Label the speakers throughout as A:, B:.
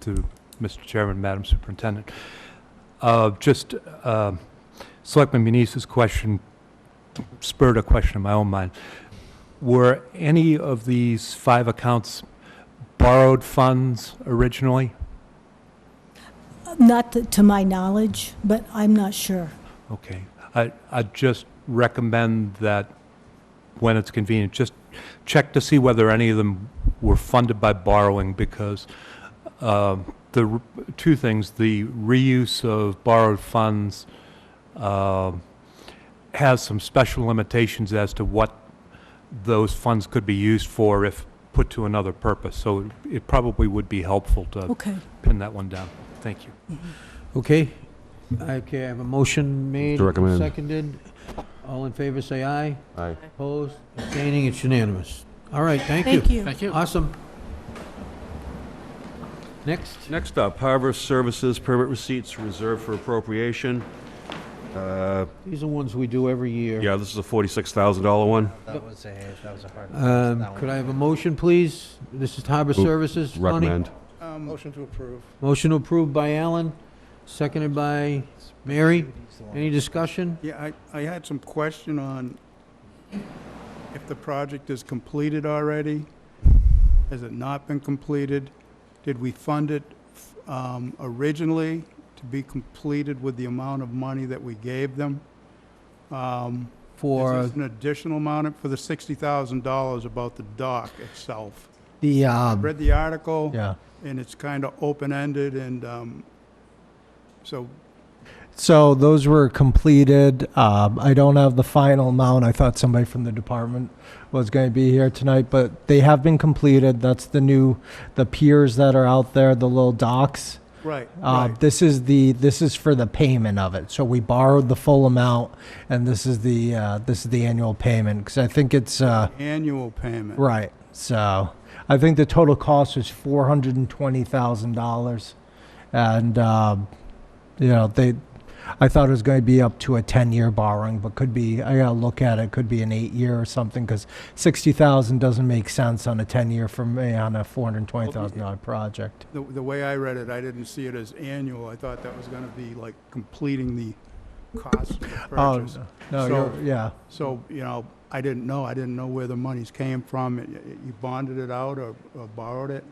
A: to Mr. Chairman, Madam Superintendent. Uh, Just, um, Selectman Muneese's question spurred a question in my own mind. Were any of these five accounts borrowed funds originally?
B: Not to- to my knowledge, but I'm not sure.
A: Okay. I, I just recommend that when it's convenient, just check to see whether any of them were funded by borrowing because um, the, r- two things, the reuse of borrowed funds um, has some special limitations as to what those funds could be used for if put to another purpose. So it- it probably would be helpful to
B: Okay.
A: pin that one down. Thank you.
C: Okay, okay, I have a motion made.
D: To recommend.
C: Seconded. All in favor, say aye.
D: Aye.
C: Opposed, abstaining, it's unanimous. All right, thank you.
B: Thank you.
E: Thank you.
C: Awesome. Next,
D: Next up, harvest services permit receipts reserved for appropriation. Uh,
C: these are ones we do every year.
D: Yeah, this is a $46,000 one.
F: That was a, that was a hard.
C: Um, Could I have a motion, please? This is Harbor Services. Tony?
D: Recommend.
G: Um,
F: Motion to approve.
C: Motion approved by Alan, seconded by Mary. Any discussion?
G: Yeah, I, I had some question on if the project is completed already, has it not been completed? Did we fund it um, originally to be completed with the amount of money that we gave them? Um,
C: For
G: Is this an additional amount for the $60,000 about the dock itself?
H: The,
G: I
H: um,
G: Read the article,
H: yeah.
G: and it's kind of open-ended, and um, so
H: So those were completed. Um, I don't have the final amount. I thought somebody from the department was going to be here tonight, but they have been completed. That's the new, the piers that are out there, the little docks.
G: Right,
H: Uh,
G: right.
H: This is the, this is for the payment of it. So we borrowed the full amount and this is the, uh, this is the annual payment. Cause I think it's, uh,
G: Annual payment.
H: right. So I think the total cost was four hundred and twenty thousand dollars. And, um, you know, they, I thought it was going to be up to a ten-year borrowing, but could be, I gotta look at it, could be an eight-year or something, because sixty thousand doesn't make sense on a ten-year for me on a four hundred and twenty thousand dollar project.
G: The, the way I read it, I didn't see it as annual. I thought that was gonna be like completing the cost of the
H: Oh,
G: purchase.
H: no,
G: So-
H: you're, yeah.
G: So, you know, I didn't know. I didn't know where the monies came from. Y- y- You bonded it out or or borrowed it?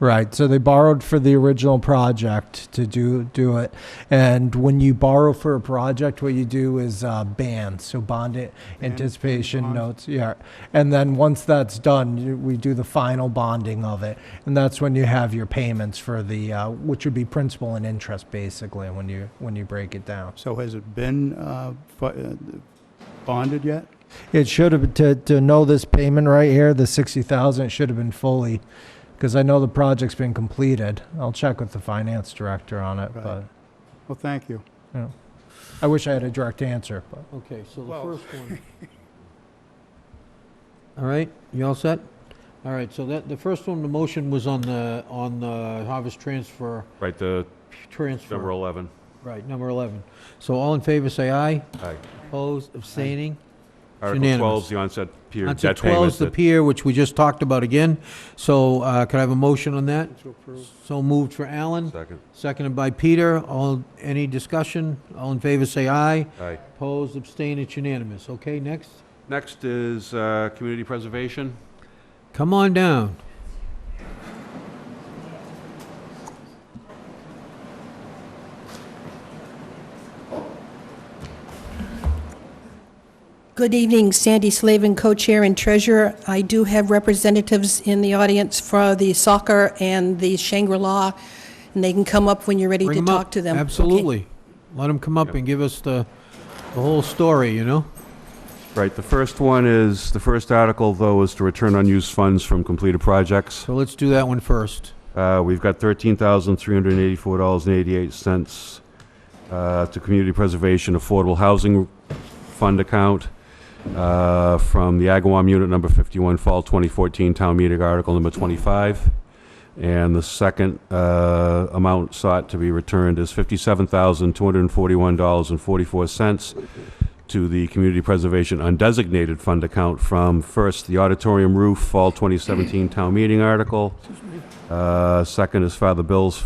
H: Right. So they borrowed for the original project to do do it, and when you borrow for a project, what you do is uh, band. So bond it,
G: Band,
H: anticipation
G: bond.
H: notes, yeah. And then once that's done, you, we do the final bonding of it, and that's when you have your payments for the uh, which would be principal and interest basically when you when you break it down.
G: So has it been, uh, fu- uh, bonded yet?
H: It should have to to know this payment right here, the sixty thousand. It should have been fully, because I know the project's been completed. I'll check with the finance director on it,
G: Right.
H: but.
G: Well, thank you.
H: I wish I had a direct answer, but.
C: Okay, so the
G: Well-
C: first one. All right, you all set? All right, so that, the first one, the motion was on the, on the harvest transfer,
D: Right, the number
C: transfer.
D: 11.
C: Right, number 11. So all in favor, say aye.
D: Aye.
C: Opposed, abstaining?
D: Article
C: unanimous.
D: 12 is the onset period
C: On
D: debt
C: to
D: payment.
C: 12 is the
D: that-
C: pier, which we just talked about again. So uh, could I have a motion on that?
G: To approve.
C: So moved for Alan,
D: Second.
C: seconded by Peter. All, any discussion? All in favor, say aye.
D: Aye.
C: Opposed, abstain, it's unanimous. Okay, next.
D: Next is uh, community preservation.
C: Come on down.
I: Good evening, Sandy Slavin, co-chair and treasurer. I do have representatives in the audience for the soccer and the Shangri-La, and they can come up when you're ready
C: Bring
I: to
C: 'em
I: talk
C: up.
I: to them. Okay.
C: Absolutely. Let them come up
D: Yep.
C: and give us the, the whole story, you know?
D: Right, the first one is, the first article, though, is to return unused funds from completed projects.
C: So let's do that one first.
D: Uh, We've got $13,384.88 uh, to Community Preservation Affordable Housing Fund account uh, from the Agawam Unit Number 51, Fall 2014 Town Meeting Article Number 25. And the second uh, amount sought to be returned is $57,241.44 to the Community Preservation Undesignated Fund account from, first, the auditorium roof, Fall 2017 Town Meeting Article, uh, Second is Father Bill's